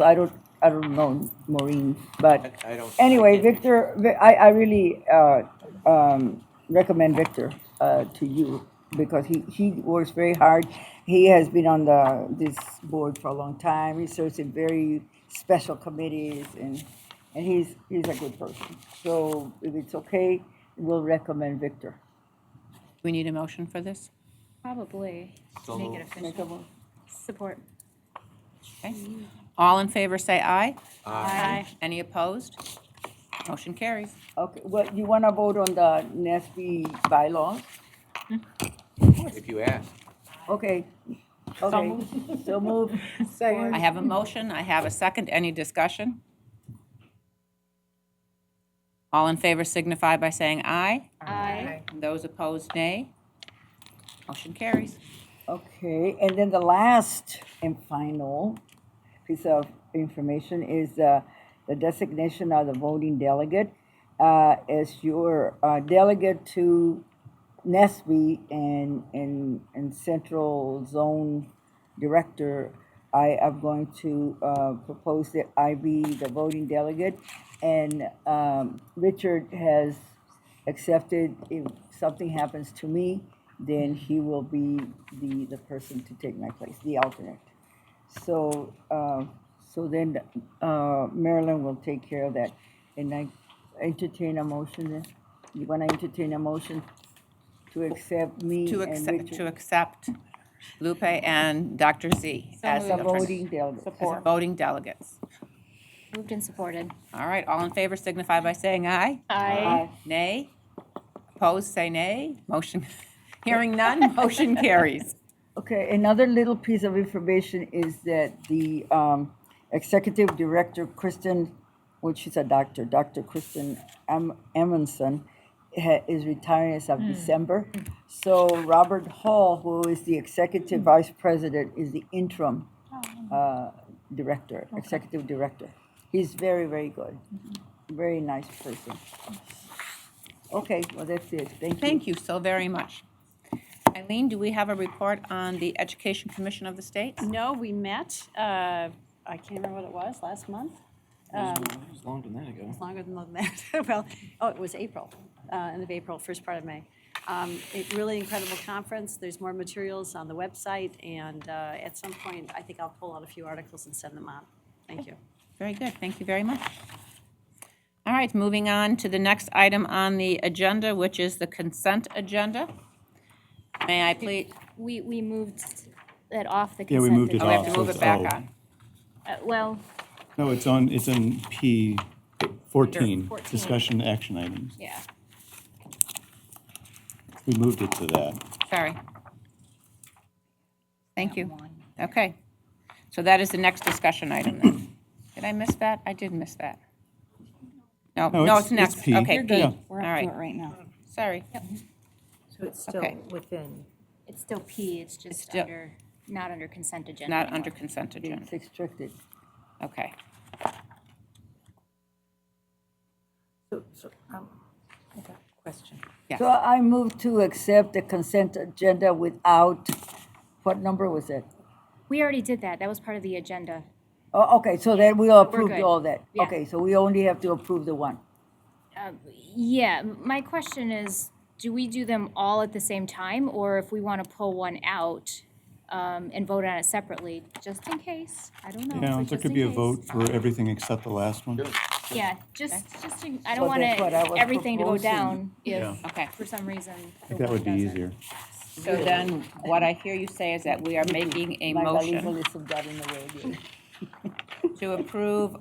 I don't, I don't know Maureen, but I- I don't- anyway, Victor, Vi- I, I really uh, um, recommend Victor uh, to you because he, he works very hard. He has been on the, this board for a long time. He serves in very special committees and, and he's, he's a good person. So if it's okay, we'll recommend Victor. We need a motion for this? Probably. So Make moved. it official. Support. Okay. All in favor, say aye. Aye. Any opposed? Motion carries. Okay, well, you want to vote on the NASB bylaws? If you ask. Okay, okay, so move. I have a motion, I have a second, any discussion? All in favor signify by saying aye. Aye. Those opposed, nay. Motion carries. Okay, and then the last and final piece of information is uh, the designation of the voting delegate uh, as your uh, delegate to NESB and, and, and Central Zone Director. I am going to uh, propose that I be the voting delegate, and um, Richard has accepted. If something happens to me, then he will be the, the person to take my place, the alternate. So, uh, so then uh, Marilyn will take care of that. And I entertain a motion, then. you want to entertain a motion to accept me To and accept, to Richard accept Lupe and Dr. Z as as a the voting delegate? as voting delegates. Moved and supported. All right, all in favor signify by saying aye. Aye. Nay? Opposed, say nay. Motion, hearing none, motion carries. Okay, another little piece of information is that the um, executive director, Kristen, which is a doctor, Dr. Kristen Am- Amundson, ha- is retiring as of December. So Robert Hall, who is the executive vice president, is the interim uh, director, executive director. He's very, very good, very nice person. Okay, well, that's it. Thank you. Thank you so very much. Eileen, do we have a report on the Education Commission of the State? No, we met, uh, I can't remember what it was, last month? Um, It's longer than that ago. It's longer than that. Well, oh, it was April, uh, end of April, first part of May. Um, It really incredible conference. There's more materials on the website, and uh, at some point, I think I'll pull out a few articles and send them out. Thank you. Very good, thank you very much. All right, moving on to the next item on the agenda, which is the consent agenda. May I please, We, we moved it off the Yeah, consent. we moved it oh, we have off, to so move it it's back O. on. Uh, Well, No, it's on, it's in P fourteen, 14. discussion action items. yeah. We moved it to that. Sorry. Thank you. Okay. So that is the next discussion item then. Did I miss that? I did miss that. No, No, no, it's- it's next. it's P. Okay, You're P. good. Yeah. All right, right now. sorry. So it's still Okay. within. It's still P, it's just still- under, not under consent agenda. Not anymore. under consent agenda. It's restricted. Okay. So, so, um, I got a question. Yes. So I move to accept the consent agenda without, what number was it? We already did that, that was part of the agenda. Oh, okay, so then we approved good. all that. Yeah. Okay, so we only have to approve the one. Yeah, m- my question is, do we do them all at the same time, or if we want to pull one out um, and vote on it separately, just in case? I don't know. Yeah, but there just could in be a case. vote for everything except the last one. Yeah, just, just, in- I Well, don't want that's what I was to, everything to go proposing. down Yeah. if, Okay. for some reason. I think that would be easier. So then what I hear you say is that we are making a Like the motion legalism got in the way again. to approve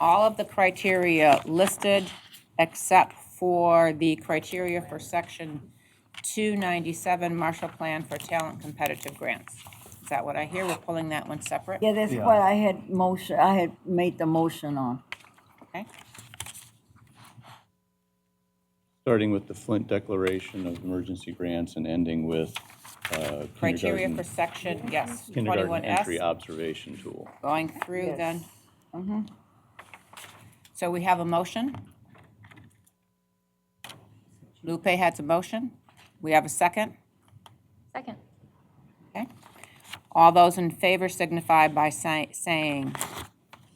all of the criteria listed except for the criteria for section 297 Marshall Plan for Talent Competitive Grants. Is that what I hear? We're pulling that one separate? Yeah, that's Yeah. what I had motion, I had made the motion on. Okay. Starting with the Flint Declaration of Emergency Grants and ending with uh, Criteria kindergarten, for section, yes, kindergarten entry 21S, observation tool. going through Yes. then. Mhm. So we have a motion. Lupe has a motion. We have a second. Second. Okay. All those in favor signify by si- saying